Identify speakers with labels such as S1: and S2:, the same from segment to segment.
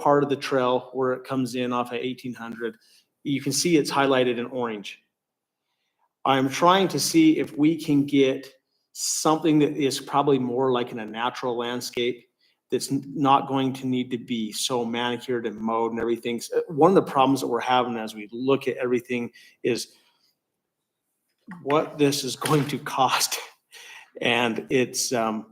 S1: part of the trail where it comes in off of eighteen hundred. You can see it's highlighted in orange. I'm trying to see if we can get something that is probably more like in a natural landscape that's n- not going to need to be so manicured and mowed and everything. So, uh, One of the problems that we're having as we look at everything is what this is going to cost. And it's, um,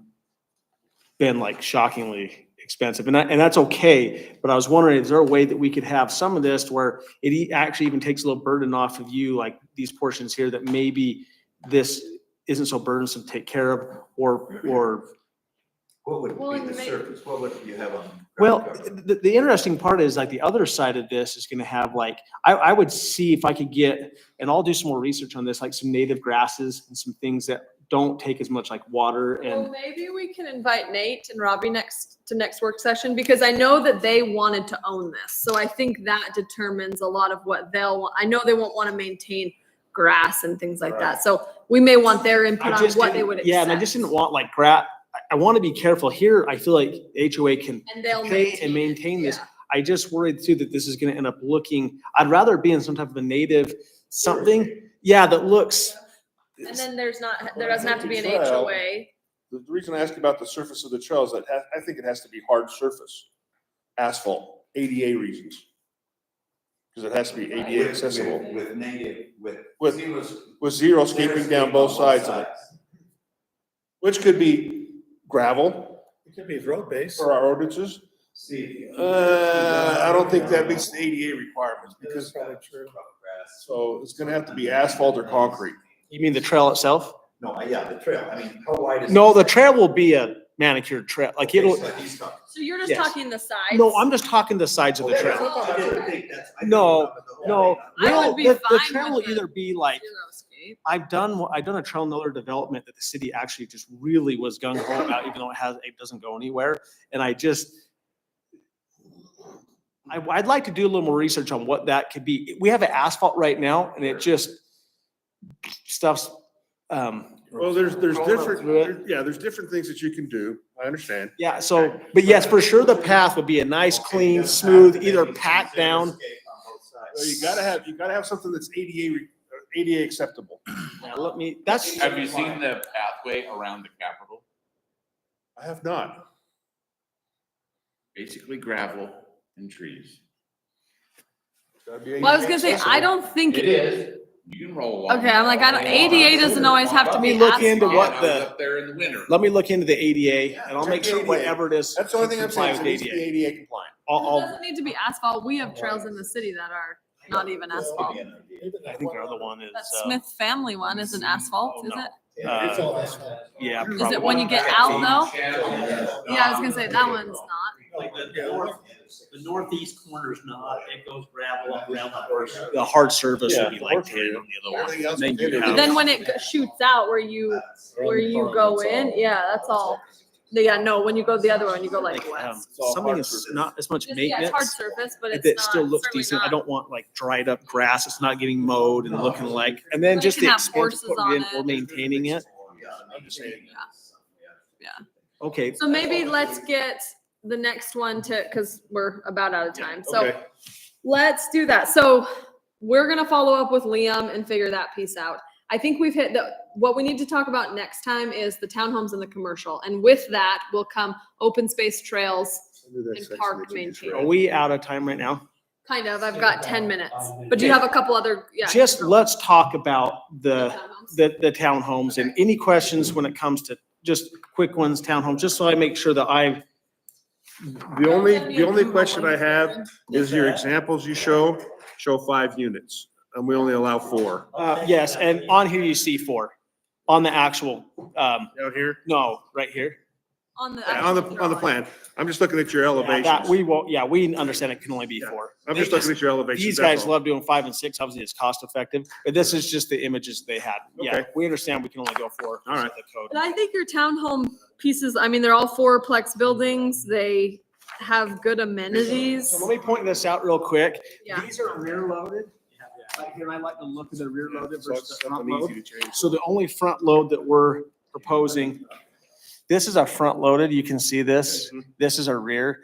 S1: been like shockingly expensive. And that, and that's okay, but I was wondering, is there a way that we could have some of this where it e- actually even takes a little burden off of you, like these portions here that maybe this isn't so burdensome to take care of or, or
S2: What would
S3: Well,
S2: be
S3: and
S2: the
S3: may-
S2: surface? What would you have on? ground
S1: Well,
S2: cover?
S1: the, the interesting part is like the other side of this is gonna have like, I, I would see if I could get, and I'll do some more research on this, like some native grasses and some things that don't take as much like water
S3: Well,
S1: and,
S3: maybe we can invite Nate and Robbie next to next work session because I know that they wanted to own this. So I think that determines a lot of what they'll, want. I know they won't want to maintain grass and things like that. So we may want their
S1: I
S3: input on
S1: just
S3: what they
S1: didn't-
S3: would accept.
S1: Yeah, and I just didn't want like gra, I, I wanna be careful here. I feel like HOA can,
S3: And they'll
S1: pay
S3: maintain.
S1: and maintain this.
S3: yeah.
S1: I just worried too that this is gonna end up looking, I'd rather it be in some type of a native something, yeah, that looks.
S3: And then there's not, there doesn't have to be an
S4: Well,
S3: HOA.
S4: The the reason I ask about the surface of the trail is that ha- I think it has to be hard surface, asphalt, ADA reasons. Because it has to be
S2: With-
S4: ADA
S2: with-
S4: accessible,
S2: With native, with.
S4: With-
S2: zero s-
S4: with
S2: zero
S4: zero scaping
S2: scape
S4: down
S2: on
S4: both sides of it, which could be gravel
S5: It could be road based.
S4: for our ordinances.
S2: See.
S4: Uh, I don't think that meets the ADA requirements
S5: That's
S4: because,
S5: probably true.
S4: so it's gonna have to be asphalt or concrete.
S1: You mean the trail itself?
S2: No, I- yeah, the trail, I mean, how wide is?
S1: No,
S2: it?
S1: the trail will be a manicured trail, like
S2: Okay,
S1: it'll,
S2: so he's talking-
S3: So you're just
S1: Yes.
S3: talking the sides.
S1: No, I'm just talking the sides of the
S2: Okay,
S1: trail.
S2: so I didn't think that's- I didn't
S1: No,
S2: remember the whole
S1: No,
S2: thing.
S3: I would
S1: well,
S3: be
S1: the, the
S3: fine
S1: trail
S3: with
S1: will
S3: it.
S1: either be like,
S3: Xeriscape.
S1: I've done, I've done a trail in another development that the city actually just really was gung ho about, even though it has, it doesn't go anywhere. And I just, I, I'd like to do a little more research on what that could be. We have asphalt right now and it just stuffs, um,
S4: Well, there's, there's
S1: Roll up
S4: different,
S1: through it.
S4: there- yeah, there's different things that you can do. I understand.
S1: yeah, so, but yes, for sure the path would be a nice,
S2: Okay,
S1: clean,
S2: doesn't
S1: smooth,
S2: have to
S1: either
S2: be
S1: pat
S2: zero
S1: down.
S2: scape on both sides.
S4: So you gotta have, you gotta have something that's ADA, re- ADA acceptable.
S1: Yeah, let me, that's,
S6: Have you seen the pathway around the Capitol?
S4: I have not.
S6: Basically gravel and trees.
S3: Well, I was gonna say, I don't think
S6: It is. You can roll along.
S3: Okay, I'm like, I don't- ADA doesn't always have to
S1: be
S6: Let me
S1: asphalt.
S6: look into what the. Up there in the winter.
S1: let me look into the ADA and I'll
S4: Check
S1: make sure
S4: ADA.
S1: whatever it is.
S4: That's the only thing I'm
S1: comply
S4: saying, is it
S1: with
S4: needs to
S1: ADA.
S4: be ADA compliant.
S1: I'll,
S3: It
S1: I'll,
S3: doesn't need to be asphalt. We have trails in the city that are not even
S2: That's
S3: asphalt.
S2: gonna be an idea.
S1: I think our other one is,
S3: That
S1: uh, Mm-hmm. Oh,
S3: Smith family one isn't asphalt, is
S1: no.
S3: it?
S2: Yeah, it's
S1: Uh,
S2: all asphalt.
S1: yeah.
S3: Is
S1: probably.
S3: it when you get out though? Yeah, I was gonna say that one's not.
S7: Like the north, the northeast corner's not, it goes gravel up around the horse.
S1: The hard surface
S4: Yeah,
S1: would be like
S4: hard
S1: ten on the other one.
S4: Everything else
S1: Then
S4: within
S1: you
S4: it
S1: have-
S3: But then when it g- shoots out where you, where you go in, yeah, that's all. Yeah, no, when you go the other one, you go like
S1: Like, um,
S3: west.
S4: all
S1: something
S4: hard
S1: that's
S4: surface.
S1: not as much
S3: Just, Yeah, it's hard
S1: maintenance,
S3: surface, but it's
S1: that still
S3: not,
S1: looks decent. I
S3: certainly not.
S1: don't want like dried up grass. It's not getting mowed and looking like, and then
S3: But it
S1: just
S3: can
S1: the
S3: have
S1: expense of
S3: horses
S1: putting it in
S3: on
S1: or
S3: it.
S1: maintaining it.
S2: Yeah, I'm just saying.
S1: Okay,
S3: So maybe let's get the next one to, because we're about out of time. So
S4: Okay.
S3: Let's do that. So we're gonna follow up with Liam and figure that piece out. I think we've hit the, what we need to talk about next time is the townhomes and the commercial. And with that will come open space trails, In park
S1: are
S3: maintained.
S1: we out of time right now?
S3: kind of. I've got ten minutes. But do you have a couple other, yeah.
S1: Just let's talk about the.
S3: townhomes?
S1: the, the townhomes and any questions when it comes to just quick ones, townhomes, just so I make sure that I,
S4: The only, the only question I have is your examples you show, show five units, and we only allow four.
S1: uh, yes, and on here you see four, on the actual, um,
S4: Down here,
S1: no, right here.
S3: On the.
S4: on the, on the plan. I'm just looking at your
S1: Yeah, That, we
S4: elevations.
S1: won't, yeah, we understand it can only be four.
S4: I'm just looking at your elevations.
S1: These
S4: that's
S1: guys
S4: all.
S1: love doing five and six, obviously it's cost effective, but this is just the images they had. Yeah,
S4: Okay.
S1: we understand we can only go four.
S4: All right.
S1: The code.
S3: But I think your townhome pieces, I mean, they're all fourplex buildings. They have good amenities.
S1: So let me point this out real quick.
S3: Yeah.
S1: These are rear loaded. Right here, I like to look at the rear loaded
S4: So
S1: versus
S4: it's
S1: the front
S4: something
S1: load.
S4: easy to change.
S1: So the only front load that we're proposing, this is our front loaded, you can see this, this is our rear.